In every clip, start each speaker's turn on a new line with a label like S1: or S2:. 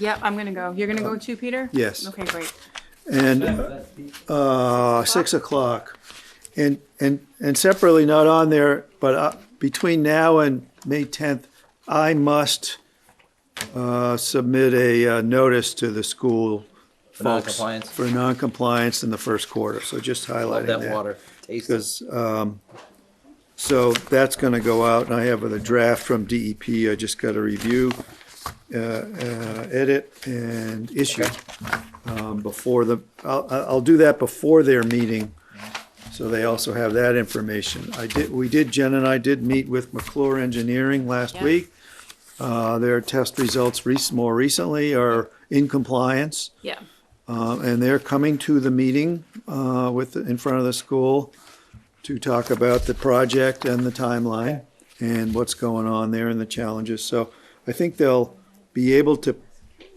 S1: Yep, I'm gonna go. You're gonna go too, Peter?
S2: Yes.
S1: Okay, great.
S2: And uh, six o'clock. And, and, and separately, not on there, but uh, between now and May 10th, I must uh, submit a uh, notice to the school folks.
S3: noncompliance?
S2: For noncompliance in the first quarter, so just highlighting that.
S3: That water tastes.
S2: Because, um, so that's gonna go out, and I have a draft from DEP, I just gotta review, uh, uh, edit and issue. Um, before the, I'll, I'll I'll do that before their meeting, so they also have that information. I did, we did, Jen and I did meet with McClure Engineering last
S1: Yeah.
S2: week. Uh, their test results rec- more recently are in compliance.
S1: Yeah.
S2: Uh, and they're coming to the meeting, uh, with, in front of the school to talk about the project and the timeline and what's going on there and the challenges. So I think they'll be able to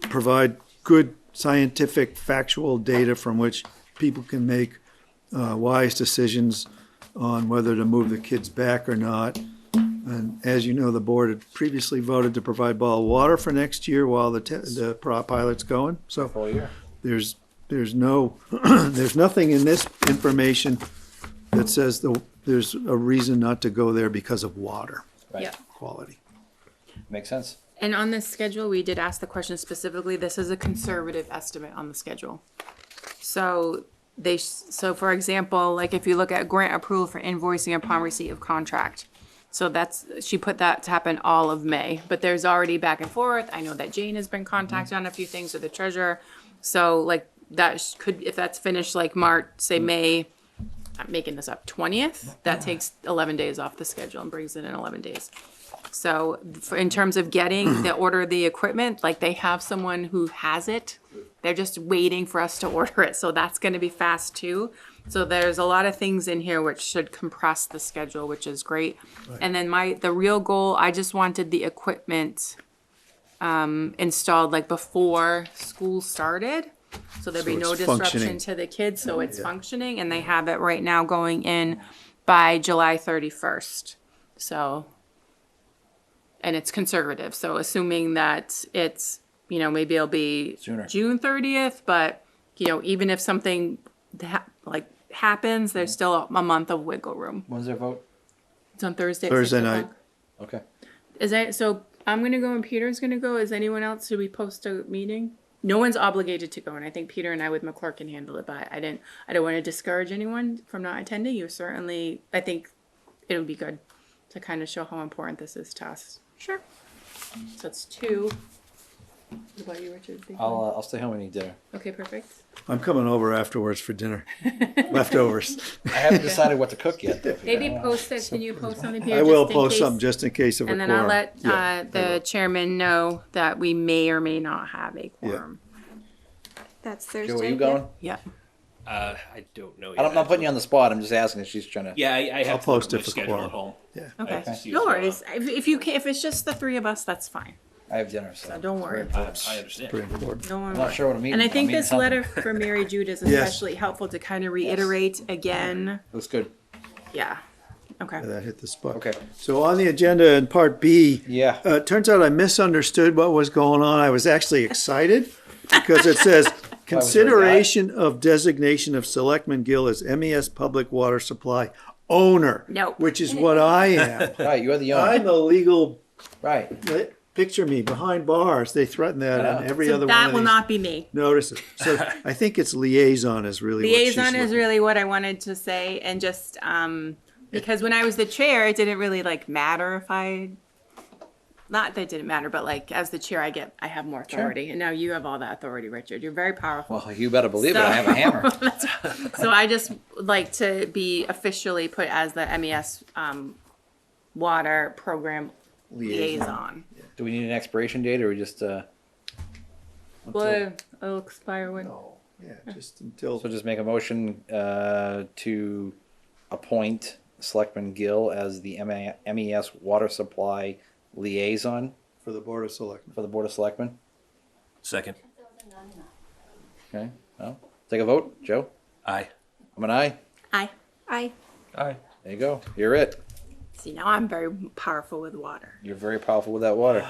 S2: provide good scientific, factual data from which people can make, uh, wise decisions on whether to move the kids back or not. And as you know, the board had previously voted to provide bottled water for next year while the, te- the pro- pilot's going, so there's, there's no, there's nothing in this information that says the, there's a reason not to go there because of water
S3: Right.
S1: Yeah.
S2: quality.
S3: Makes sense.
S1: And on this schedule, we did ask the question specifically, this is a conservative estimate on the schedule. So they, s- so for example, like if you look at grant approval for invoicing upon receipt of contract. So that's, she put that to happen all of May, but there's already back and forth. I know that Jane has been contacted on a few things with the treasurer. So like that sh- could, if that's finished like March, say May, I'm making this up, twentieth, that takes eleven days off the schedule and brings it in eleven days. So for, in terms of getting the order of the equipment, like they have someone who has it. They're just waiting for us to order it. So that's going to be fast too. So there's a lot of things in here which should compress the schedule, which is great. And then my, the real goal, I just wanted the equipment um, installed like before school started. So there'd be
S2: So
S1: no
S2: it's
S1: disruption
S2: functioning.
S1: to the kids, so it's functioning and they have it right now going in by July thirty-first. So and it's conservative. So assuming that it's, you know, maybe it'll be
S3: Sooner.
S1: June thirtieth, but you know, even if something ha- like happens, there's still a, a month of wiggle room.
S3: When's their vote?
S1: It's on Thursday. at
S2: Thursday
S1: six
S2: night.
S1: o'clock.
S3: Okay.
S1: Is that so? I'm gonna go and Peter's gonna go. Is anyone else? Should we post a meeting? No one's obligated to go, and I think Peter and I with McClure can handle it. But I didn't. I don't want to discourage anyone from not attending. You certainly. I think it would be good to kind of show how important this is to us. Sure. So it's two. What about you, Richard? Big one?
S3: I'll, uh, I'll stay home and eat dinner.
S1: okay, perfect.
S2: I'm coming over afterwards for dinner, leftovers.
S3: I haven't decided what to cook yet. though, Peter.
S1: Maybe post it. Can you post something? Peter,
S2: I will
S1: just in
S2: post
S1: case?
S2: something just in case of a
S1: And
S2: quorum.
S1: then I'll let
S2: Yeah,
S1: uh, the chairman know that we may or may not have a quorum.
S4: That's Thursday.
S3: Joe, are you
S4: yeah.
S3: going?
S1: Yeah.
S5: Uh, I don't know. Yet.
S3: I don't, I'm not putting you on the spot. I'm just asking if she's trying to.
S5: Yeah, I, I have
S2: I'll
S5: to look
S2: post
S5: at
S2: it
S5: my
S2: for
S5: schedule
S2: quorum.
S5: at home.
S2: Yeah.
S5: I have to
S1: Okay.
S5: see
S1: No
S5: what's going
S1: worries. If, if you can, if it's just the three of us, that's fine.
S3: I have dinner, so.
S1: So don't worry.
S5: on. I, I understand.
S2: Pretty important.
S1: No one.
S3: I'm not sure what I'm eating.
S1: And I
S3: I'm
S1: think
S3: eating
S1: this
S3: something.
S1: letter for Mary Jude is
S2: Yes.
S1: especially helpful to kind of reiterate again.
S3: Looks good.
S1: Yeah. Okay.
S2: That hit the spot.
S3: Okay.
S2: So on the agenda in part B.
S3: Yeah.
S2: Uh, it turns out I misunderstood what was going on. I was actually excited because it says consideration of designation of Selectman Gill as MES Public Water Supply owner.
S1: No.
S2: Which is what I am.
S3: Right, you're the owner.
S2: I'm a legal,
S3: Right.
S2: picture me behind bars. They threaten that on every
S1: So
S2: other
S1: that
S2: one
S1: will
S2: of these
S1: not be me.
S2: notices. So I think it's liaison is really what she's
S1: Liaison is
S2: looking-
S1: really what I wanted to say, and just um, because when I was the chair, it didn't really like matter if I. Not that it didn't matter, but like as the chair, I get I have more authority, and now you have all that authority, Richard. You're very powerful.
S3: Well, you better believe it. I have a hammer.
S1: So I just like to be officially put as the MES um, water program liaison.
S3: Do we need an expiration date or we just, uh,
S1: Well, it'll expire when.
S2: Oh, Yeah, just until,
S3: so just make a motion, uh, to appoint Selectman Gill as the MA MES E water supply liaison
S2: for the Board of Selectmen.
S3: for the Board of Selectmen?
S5: Second.
S3: Okay, well, take a vote. Joe?
S5: Aye.
S3: I'm an aye.
S1: I
S4: I
S5: Aye.
S3: There you go. You're it.
S1: see now I'm very powerful with water.
S3: You're very powerful with that water.